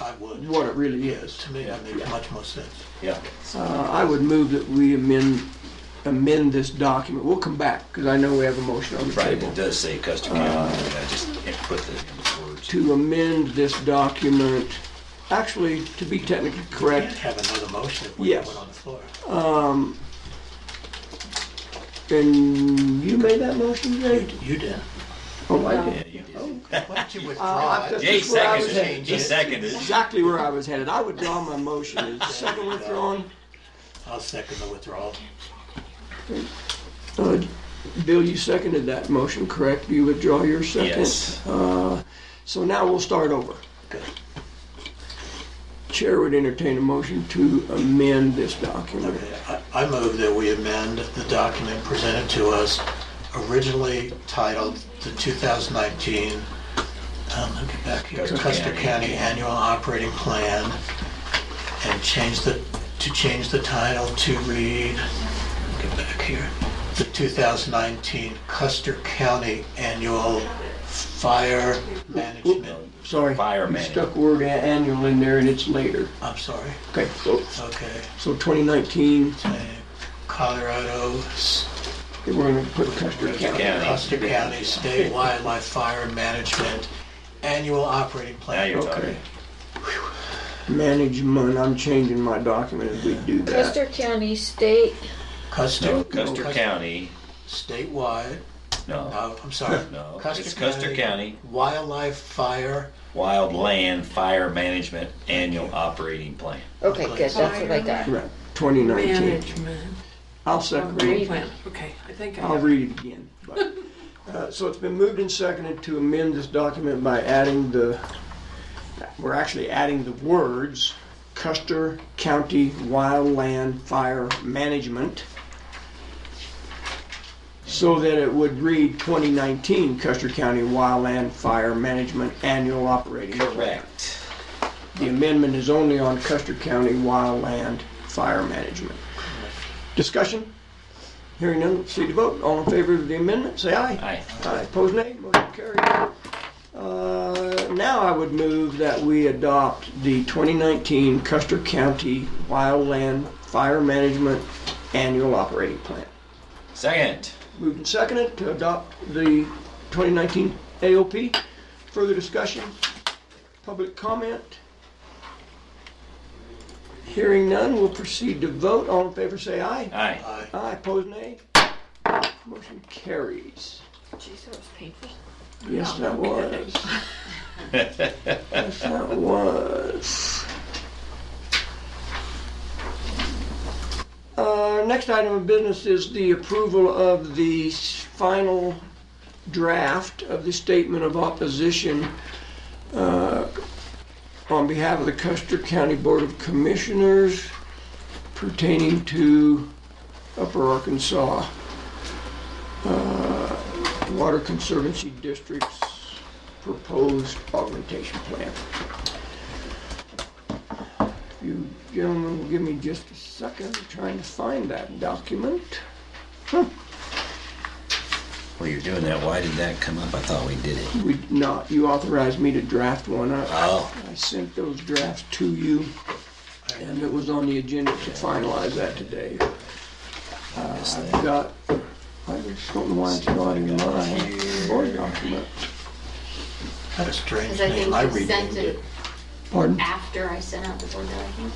I would. what it really is. To me, that makes much more sense. Yeah. Uh, I would move that we amend, amend this document. We'll come back, because I know we have a motion on the Right, table. it does say Custer County, but I just can't put the words. To amend this document, actually, to be technically Can't correct, have another motion if we have Yes. one on the floor. and you made that motion, Jay? You did. Oh, I did. Yeah, you did. Why don't you Uh, withdraw I've it? just- Yeah, he That's where I was seconded it, at. he seconded it. Exactly where I was headed. I withdraw my motion. Is the second withdrawn? I'll second the withdrawal. Uh, Bill, you seconded that motion, correct? You withdraw your second? Yes. Uh, So now we'll start over. Good. Chair would entertain a motion to amend this document. I- I move that we amend the document presented to us originally titled the 2019, um, let me get back here, Custer Custer County. County Annual Operating Plan, and change the, to change the title to read, get back here, the 2019 Custer County Annual Fire Management, Sorry. Fire you man. Stuck word a- annual in there and it's later. I'm sorry, Okay, so, okay, so 2019, uh, Colorado s- we're going to put Custer County. County. Custer County State Wildlife Fire Management Annual Operating Now Plan. you're talking. Okay. Management, I'm changing my document as we do that. Custer County State, Custer. No, Custer County, Statewide, no, no, I'm sorry. No, it's Custer County. Wildlife Fire, Wildland Fire Management Annual Operating Plan. okay, good, that's what I got. Right, 2019. Management. I'll second it. Plan. Okay, I think I I'll have. read it again. but, uh, So it's been moved and seconded to amend this document by adding the, we're actually adding the words Custer County Wildland Fire Management so that it would read 2019 Custer County Wildland Fire Management Annual Operating. Plan. Correct. The amendment is only on Custer County Wildland Fire Management. Discussion? Hearing none, proceed to vote. All in favor of the amendment, say aye. Aye. Aye. Opposed, nay. Motion carried. Uh, Now I would move that we adopt the 2019 Custer County Wildland Fire Management Annual Operating Plan. Second. Moved and seconded to adopt the 2019 AOP. Further discussion? Public comment? Hearing none, we'll proceed to vote. All in favor, say aye. Aye. I Aye, opposed, nay. Motion carries. Jeez, that was painful. Yes, that was. Yes, that was. Uh, next item of business is the approval of the s- final draft of the statement of opposition uh, on behalf of the Custer County Board of Commissioners pertaining to Upper Arkansas uh, Water Conservancy District's proposed augmentation plan. If You gentlemen will give me just a second, I'm trying to find that document. Well, you're doing that, why did that come up? I thought we did it. We, not, you authorized me to draft one. I, Oh, I sent those drafts to you, and it was on the agenda to finalize that today. Uh, I missed I've that. got, I just don't know why it's not in mine, board document. That's a strange Because I name. think I you renamed sent it. it Pardon? after I sent out the board that I think.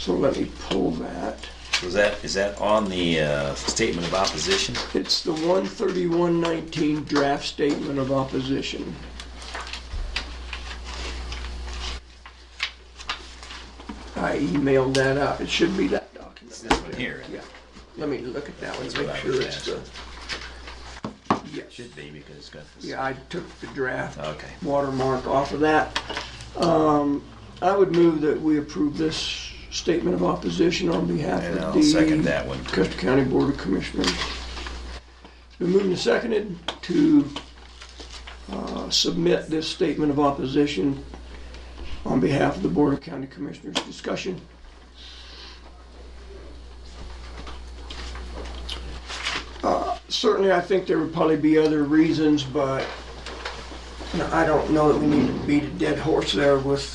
So let me pull that. Was that, is that on the uh, statement of opposition? It's the 13119 draft statement of opposition. I emailed that out. It should be that document. This one here? Yeah. Let me look at that one That's to what make I sure was it's the. Yes. Should be because it's got this. Yeah, I took the draft Okay. watermark off of that. Um, I would move that we approve this statement of opposition on behalf And of I'll the. second that one. Custer County Board of Commissioners. Been moved and seconded to uh, submit this statement of opposition on behalf of the Board of County Commissioners. Discussion? Uh, Certainly, I think there would probably be other reasons, but you know, I don't know that we need to beat a dead horse there with